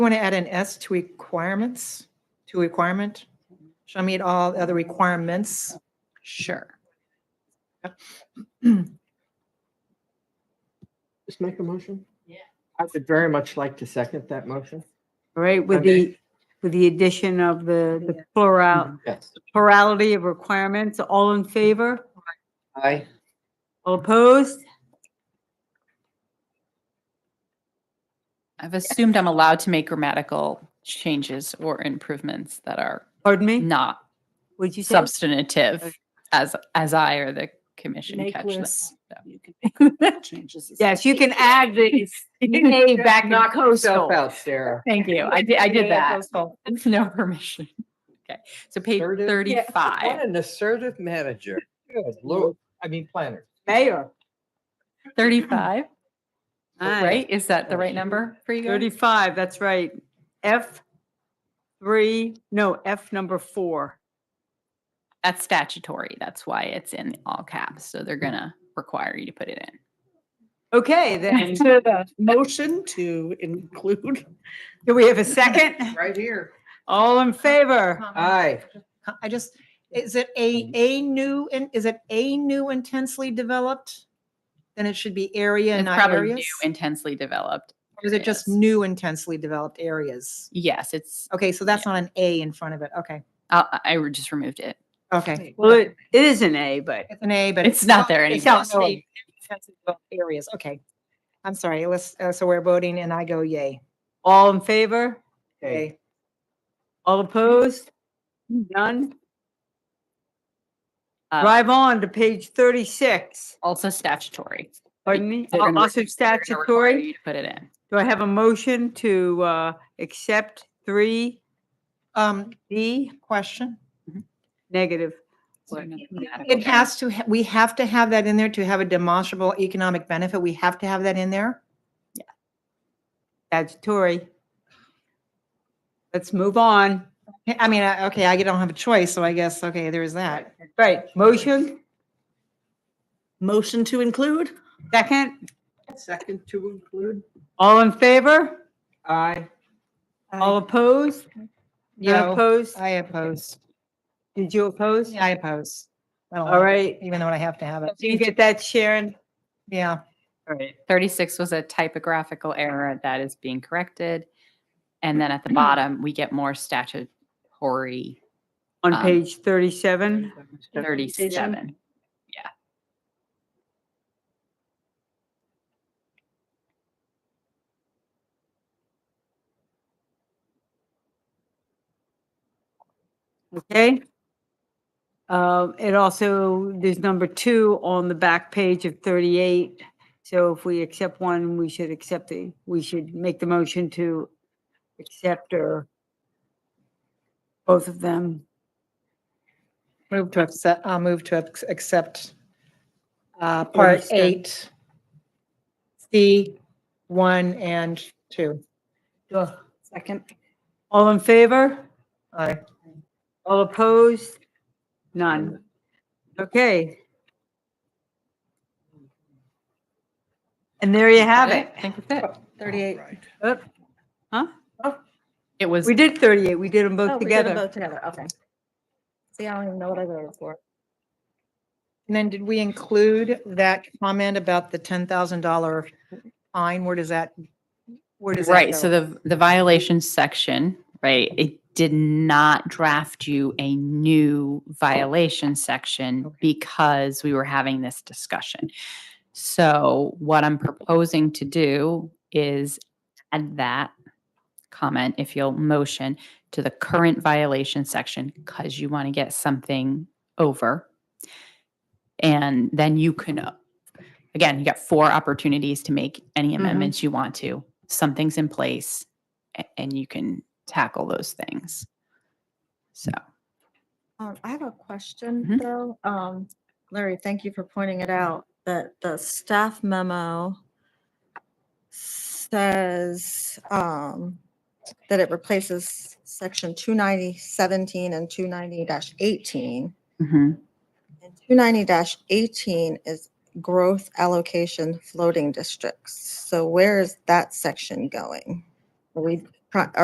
want to add an S to requirements, to requirement? Shall meet all other requirements. Sure. Just make a motion? Yeah. I would very much like to second that motion. Right, with Okay. the, with the addition of the the plural, Yes. plurality of requirements, all in favor? Aye. All opposed? I've assumed I'm allowed to make grammatical changes or improvements that are Pardon me? not Would you say? substantive as, as I or the commission Make catch them. lists. You can make changes. Yes, you can add the A back in Knock yourself coastal. out, Sarah. Thank you. I did, I did that. Coastal. With No permission. Okay. So page Assertive. Yeah. What thirty-five, an assertive manager. Good lord, I mean planner. Mayor. thirty-five, Aye. right? Is that the right number for you guys? 35, that's right. F three, no, F number four. That's statutory. That's why it's in all caps. So they're gonna require you to put it in. Okay, then, To the motion to include. do we have a second? Right here. All in favor? Aye. I just, is it a, a new, and is it a new intensely developed? Then it should be area and It's not probably new areas? intensely developed. Or is it just areas. new intensely developed areas? Yes, it's, Okay, so that's not an A in front of it. Okay, I, I just removed it. okay. Well, it it is an A, but It's an A, but. It's not there it's anymore. not state intensive Areas, okay. I'm sorry, let's, uh, so we're voting and I go yay. all in favor? Okay. All opposed? None? Uh, Drive on to page 36. Also statutory. Pardon me? They're gonna- Also They're gonna require statutory. you to Put it in. Do I have a motion to uh, accept 3D Um, question? negative? It has to, ha- we have to have that in there to have a demonstrable economic benefit. We have to have that in there. Statutory. Let's move on. I I mean, I- okay, I don't have a choice, so I guess, okay, there is that. Right, motion, Motion to include? second, Second to include? all in favor? Aye. All opposed? None No, opposed? I oppose. Did you oppose? I oppose. I don't All like right. it, Even though I have to have it. Do you get that, Sharon? Yeah. All right. Thirty-six was a typographical error that is being corrected. And then at the bottom, we get more statutory On Um, page 37? thirty-seven. Okay. Um, It also, there's number two on the back page of 38. So if we accept one, we should accept the, we should make the motion to accept or both of them. Move to accept, I'll move to ac- accept uh, part Understood. eight, C, one and two. Second. All in favor? Aye. All opposed? None. Okay. And there you have it. I think that's it. Thirty-eight. Oop. Huh? It was, We did 38. We did them Oh, both we did them together. both Together, okay. See, I don't even know what I voted for. And then did we include that comment about the ten thousand dollar fine? Where does that, where does that right, so go? the, the violations section, right, it did not draft you a new violation section Okay. because we were having this discussion. So what I'm proposing to do is add that comment, if you'll motion, to the current violation section, because you want to get something over. And then you can, uh, again, you got four opportunities to make any amendments you want to. Something's in place a- and you can tackle those things. So, Um, I have a question Mhm. though. Um, Larry, thank you for pointing it out, that the staff memo says, um, that it replaces section two ninety seventeen and two ninety eighteen. mhm. And two ninety eighteen is growth allocation floating districts. So where is that section going? Are we pri-